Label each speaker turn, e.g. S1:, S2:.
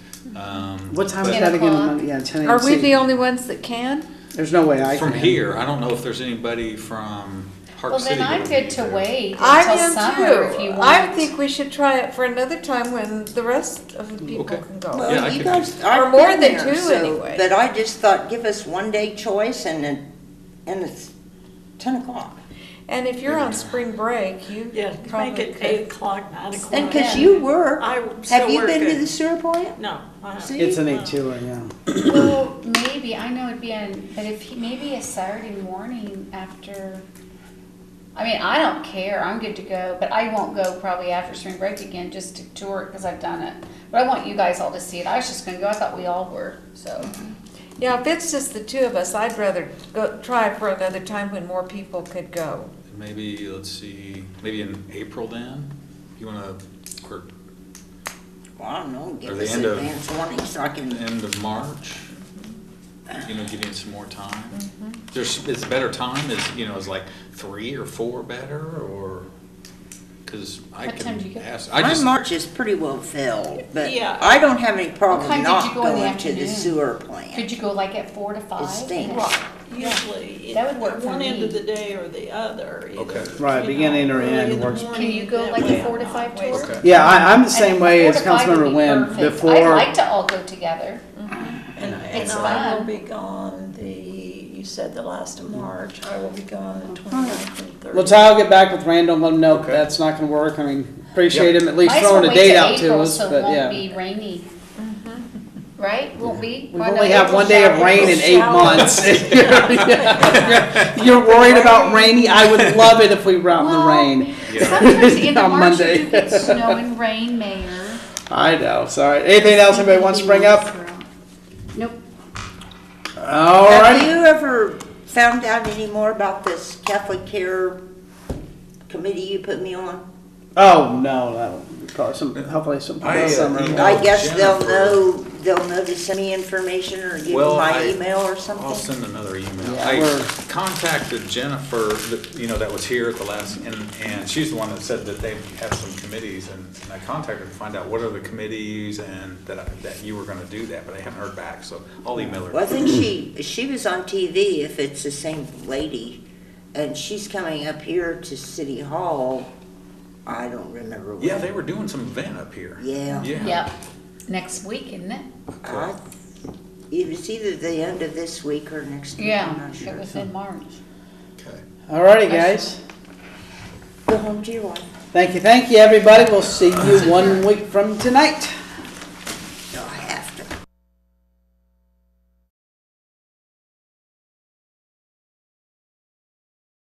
S1: Um,
S2: What time is
S3: 10
S2: that again?
S3: o'clock.
S2: Monday? Yeah, ten AM.
S4: Are we the
S2: See,
S4: only ones that can?
S2: There's no way I
S1: from
S2: can.
S1: here, I don't know if there's anybody from Park
S3: Well,
S1: City.
S3: then I'm
S1: that would
S3: good
S1: be
S3: to
S1: there.
S3: wait
S4: I
S3: until summer
S4: am
S3: if you
S4: too.
S3: want.
S4: I think we should try it for another time when the rest of the people
S1: Okay.
S4: can go.
S1: Yeah, I
S5: Well, you
S1: could
S5: guys,
S1: do-
S4: Or
S5: I've
S4: more
S5: been
S4: than
S5: there,
S4: two
S5: so-
S4: anyway.
S5: But I just thought, give us one day choice and it, and it's ten o'clock.
S4: And if you're on spring break, you
S6: Yeah, make
S4: probably
S6: it eight
S4: could.
S6: o'clock, nine o'clock.
S5: And cause you work,
S6: I would still
S5: have you
S6: work
S5: been to
S6: it.
S5: the sewer plant?
S6: No, uh-huh. I haven't.
S5: See?
S2: It's an eight two, yeah.
S3: Well, maybe, I know it'd be on, but if, he- maybe a Saturday morning after, I mean, I don't care, I'm good to go, but I won't go probably after spring break again, just to tour it, because I've done it. But I want you guys all to see it, I was just gonna go, I thought we all were, so.
S4: Yeah, if it's just the two of us, I'd rather go, try it for another time when more people could go.
S1: Maybe, let's see, maybe in April then? You wanna, or
S5: Well, I don't know,
S1: Or
S5: give
S1: the
S5: us
S1: end of-
S5: advance warning so I
S1: the
S5: can,
S1: end of March? You know, giving some more time?
S3: Mm-hmm.
S1: There's, is better time, is, you know, is like three or four better, or? Cause I
S3: What time do you
S1: can
S3: get?
S1: ask, I
S5: my
S1: just,
S5: March is pretty well filled, but
S6: Yeah.
S5: I don't have any problem
S3: time did
S5: not
S3: you go in the
S5: going to the
S3: afternoon?
S5: sewer plant.
S3: Could you go like at four to five?
S5: stinks.
S6: Right, usually.
S3: That would work for
S6: One end
S3: me.
S6: of the day or the other. either,
S1: Okay.
S2: Right,
S6: you
S2: beginning
S6: know,
S2: or
S6: early
S2: end
S6: in the
S2: works.
S6: morning,
S3: Can you go
S6: that
S3: like
S6: way
S3: a four to
S6: I'm
S3: five
S6: not wasting
S3: tour?
S1: okay.
S2: Yeah, I, I'm the same
S3: And
S2: way
S3: four
S2: as
S3: to five would
S2: Councilmember
S3: be
S2: Wynn.
S3: perfect.
S2: Before
S3: I'd like to all go together.
S6: And, and
S3: It's
S6: I will
S3: fun.
S6: be gone the, you said the last of March, I will be gone the twenty-ninth and
S2: Well,
S6: thirtieth.
S2: Ty will get back with Randall and let him know
S1: Okay.
S2: that's not gonna work. I mean, appreciate him at least
S3: Might as well
S2: throwing a
S3: wait
S2: date
S3: till
S2: out to
S3: April
S2: us,
S3: so it
S2: but
S3: won't
S2: yeah.
S3: be rainy. Right? Won't be?
S2: We only have one day of rain in eight months. Yeah. You're worried about rainy? I would love it if we were out in the
S3: Well,
S2: rain.
S3: Sometimes in the
S2: On
S3: March
S2: Monday.
S3: you do get snow and rain, Mayor.
S2: I know, sorry. Anything else anybody wants to bring up?
S3: Nope.
S2: All
S5: Have
S2: right.
S5: you ever found out any more about this Catholic Care Committee you put me on?
S2: Oh, no, no. Probably some, hopefully some,
S1: I, uh,
S2: summer.
S1: emailed-
S5: I guess they'll
S1: Jennifer.
S5: know, they'll know to send me information or give me
S1: Well, I-
S5: my email or
S1: I'll
S5: something.
S1: send another email.
S2: Yeah,
S1: I
S2: we're-
S1: contacted Jennifer, that- you know, that was here at the last, and, and she's the one that said that they have some committees, and and I contacted her to find out what are the committees and that, I- that you were gonna do that, but I haven't heard back, so I'll email
S5: Well,
S1: her.
S5: I think she, she was on TV, if it's the same lady, and she's coming up here to City Hall. I don't remember when.
S1: Yeah, they were doing some event up here.
S5: Yeah.
S1: Yeah.
S3: Yep. Next week, isn't it?
S5: I- It was either the end of this week or next week, I'm
S3: Yeah,
S5: not
S3: it
S5: sure.
S3: was in March.
S1: Okay.
S2: All righty, guys.
S5: Go home to your wife.
S2: Thank you, thank you, everybody. We'll see you one week from tonight.